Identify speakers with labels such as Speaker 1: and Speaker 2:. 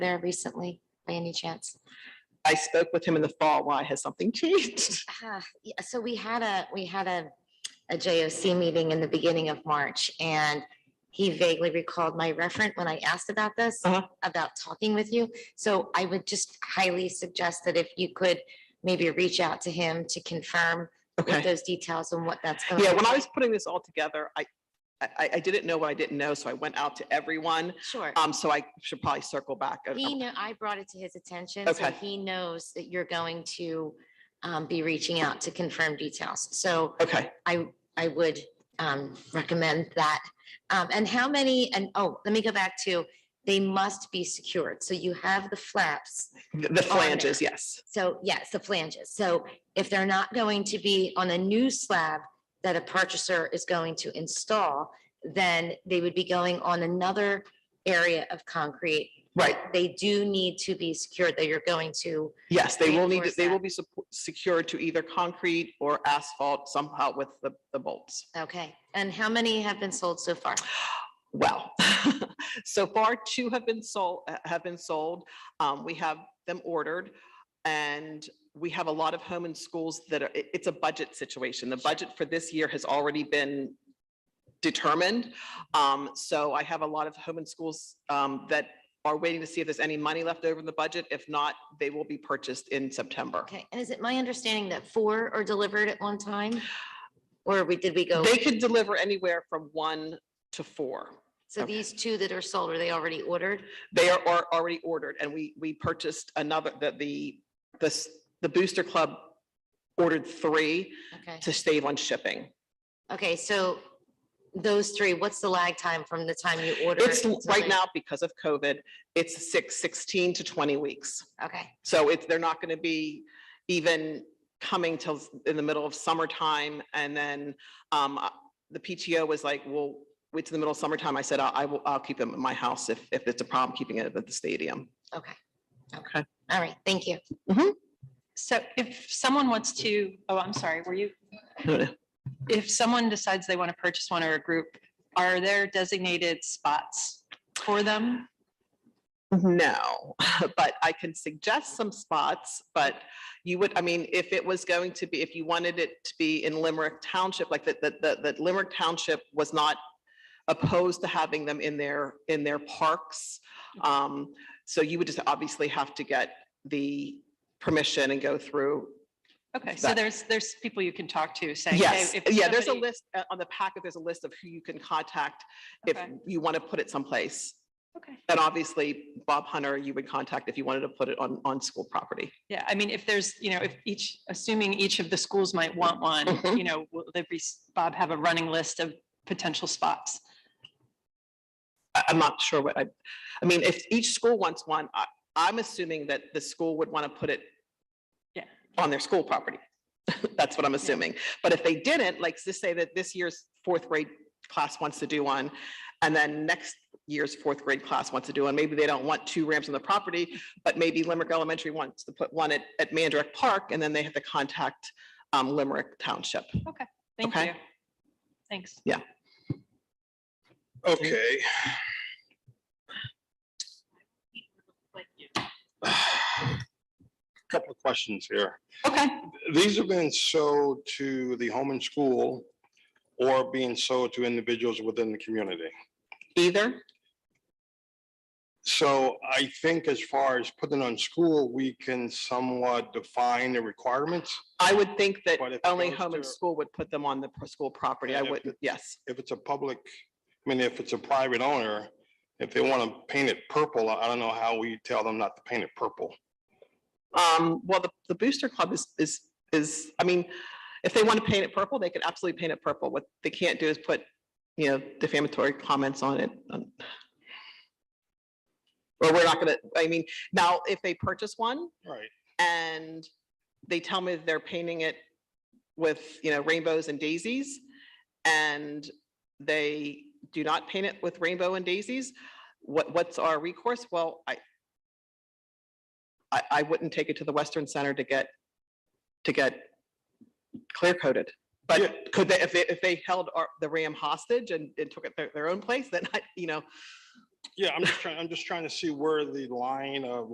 Speaker 1: there recently by any chance?
Speaker 2: I spoke with him in the fall. Why has something changed?
Speaker 1: Ah, yeah, So we had a, we had a, a JOC meeting in the beginning of March and he vaguely recalled my referent when I asked about this,
Speaker 2: Uh-huh.
Speaker 1: about talking with you. So I would just highly suggest that if you could maybe reach out to him to confirm what
Speaker 2: Okay.
Speaker 1: those details and what that's. going
Speaker 2: Yeah,
Speaker 1: to
Speaker 2: when
Speaker 1: look
Speaker 2: I
Speaker 1: like.
Speaker 2: was putting this all together, I, I, I didn't know what I didn't know, so I went out to everyone.
Speaker 1: Sure.
Speaker 2: Um, so I should probably circle back. Uh,
Speaker 1: He knew, I brought it to his attention. so
Speaker 2: Okay.
Speaker 1: He knows that you're going to um, be reaching out to confirm details. So
Speaker 2: Okay,
Speaker 1: I, I would um, recommend that. Um, And how many, and oh, let me go back to, they must be secured. So you have the flaps.
Speaker 2: the the
Speaker 1: there.
Speaker 2: flanges, yes.
Speaker 1: So yes, the flanges. So if they're not going to be on a new slab that a purchaser is going to install, then they would be going on another area of concrete.
Speaker 2: Right,
Speaker 1: They do need to be secured that you're going to,
Speaker 2: yes, they will need,
Speaker 1: Reinforce
Speaker 2: they
Speaker 1: that.
Speaker 2: will be sup- secured to either concrete or asphalt somehow with the, the bolts.
Speaker 1: okay. And how many have been sold so far?
Speaker 2: Well, so far two have been sold, uh, have been sold. Um, we have them ordered. And we have a lot of home and schools that are, it- it's a budget situation. The budget for this year has already been determined. Um, so I have a lot of home and schools, um, that are waiting to see if there's any money left over in the budget. If not, they will be purchased in September.
Speaker 1: Okay, and is it my understanding that four are delivered at one time? Or we, did we go,
Speaker 2: They could deliver anywhere from one to four.
Speaker 1: so
Speaker 2: okay.
Speaker 1: these two that are sold, are they already ordered?
Speaker 2: They are, are already ordered and we, we purchased another, the, the, the, s- the Booster Club ordered three
Speaker 1: Okay,
Speaker 2: to save on shipping.
Speaker 1: okay, so those three, what's the lag time from the time you order?
Speaker 2: It's, l-
Speaker 1: until
Speaker 2: right
Speaker 1: they-
Speaker 2: now, because of COVID, it's six, 16 to 20 weeks.
Speaker 1: Okay,
Speaker 2: So it's, they're not going to be even coming till s- in the middle of summertime. And then um, uh, the PTO was like, well, wait till the middle of summertime. I said, I I will, I'll keep them at my house if, if it's a problem keeping it at the stadium.
Speaker 1: okay.
Speaker 2: Okay.
Speaker 1: All right, thank you.
Speaker 3: So if someone wants to, oh, I'm sorry, were you, if someone decides they want to purchase one or a group, are there designated spots for them?
Speaker 2: No, but I can suggest some spots, but you would, I mean, if it was going to be, if you wanted it to be in Limerick Township, like that, that, that that Limerick Township was not opposed to having them in their, in their parks.
Speaker 3: Mm-hmm.
Speaker 2: Um, so you would just obviously have to get the permission and go through.
Speaker 3: Okay, so
Speaker 2: That-
Speaker 3: there's, there's people you can talk to saying. hey,
Speaker 2: Yes,
Speaker 3: if
Speaker 2: yeah, there's a
Speaker 3: somebody-
Speaker 2: list, uh, on the packet, there's a list of who you can contact if
Speaker 3: Okay,
Speaker 2: you want to put it someplace.
Speaker 3: Okay,
Speaker 2: And obviously, Bob Hunter, you would contact if you wanted to put it on, on school property.
Speaker 3: yeah, I mean, if there's, you know, if each, assuming each of the schools might want one,
Speaker 2: Mhm.
Speaker 3: you know, will there be, s- Bob have a running list of potential spots?
Speaker 2: I, I'm not sure what I, I mean, if each school wants one, I, I'm assuming that the school would want to put it
Speaker 3: Yeah.
Speaker 2: on their school property. That's what I'm assuming. But if they didn't, like, just say that this year's fourth grade class wants to do one, and then next year's fourth grade class wants to do one, maybe they don't want two ramps on the property, but maybe Limerick Elementary wants to put one at, at Mandarich Park, and then they have to contact, um, Limerick Township.
Speaker 3: Thank
Speaker 2: Okay.
Speaker 3: you. Thanks.
Speaker 4: Okay. Couple of questions here.
Speaker 2: Okay.
Speaker 4: These are being sold to the home and school or being sold to individuals within the community.
Speaker 2: Either.
Speaker 4: So I think as far as putting on school, we can somewhat define the requirements.
Speaker 2: I would think that
Speaker 4: But if it
Speaker 2: only
Speaker 4: goes
Speaker 2: home and
Speaker 4: to-
Speaker 2: school would put them on the pro- school property. I
Speaker 4: And if
Speaker 2: wouldn't, yes.
Speaker 4: If it's a public, I mean, if it's a private owner, if they want to paint it purple, I don't know how we tell them not to paint it purple.
Speaker 2: Um, well, the, the Booster Club is, is, is, I mean, if they want to paint it purple, they could absolutely paint it purple. What they can't do is put, you know, defamatory comments on it. um, Or we're not gonna, I mean, now if they purchase one
Speaker 4: Right.
Speaker 2: and they tell me they're painting it with, you know, rainbows and daisies, and they do not paint it with rainbow and daisies, what, what's our recourse? Well, I, I, I wouldn't take it to the Western Center to get, to get clear coated.
Speaker 4: Yeah.
Speaker 2: But could they, if they, if they held our- the Ram hostage and, and took it their, their own place, then I, you know,
Speaker 4: Yeah, I'm just trying, I'm just trying to see where the line of